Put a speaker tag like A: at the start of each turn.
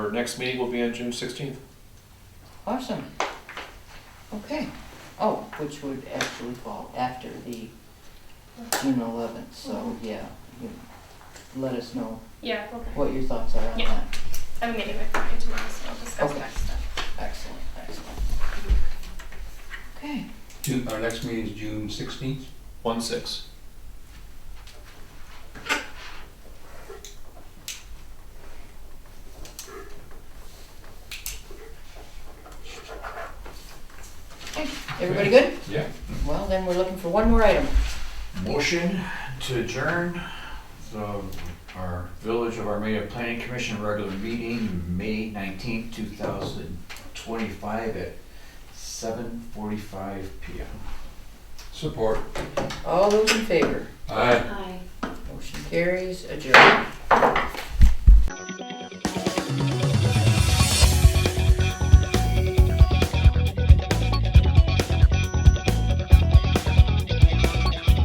A: our next meeting will be on June sixteenth.
B: Awesome. Okay. Oh, which would actually fall after the June eleventh, so yeah, you let us know
C: Yeah, okay.
B: what your thoughts are on
C: Yeah.
B: that.
C: I have a meeting with Brian tomorrow, so I'll discuss
B: Okay.
C: next stuff.
B: Excellent, excellent. Okay,
D: June, our next meeting is June sixteenth.
A: One six.
B: everybody good?
D: Yeah.
B: Well, then we're looking for one more item.
E: Motion to adjourn the, our Village of Armada Planning Commission regular meeting, May nineteenth, two thousand twenty-five at seven forty-five PM.
D: Support.
B: All those in favor?
D: Aye.
B: Motion carries, adjourned.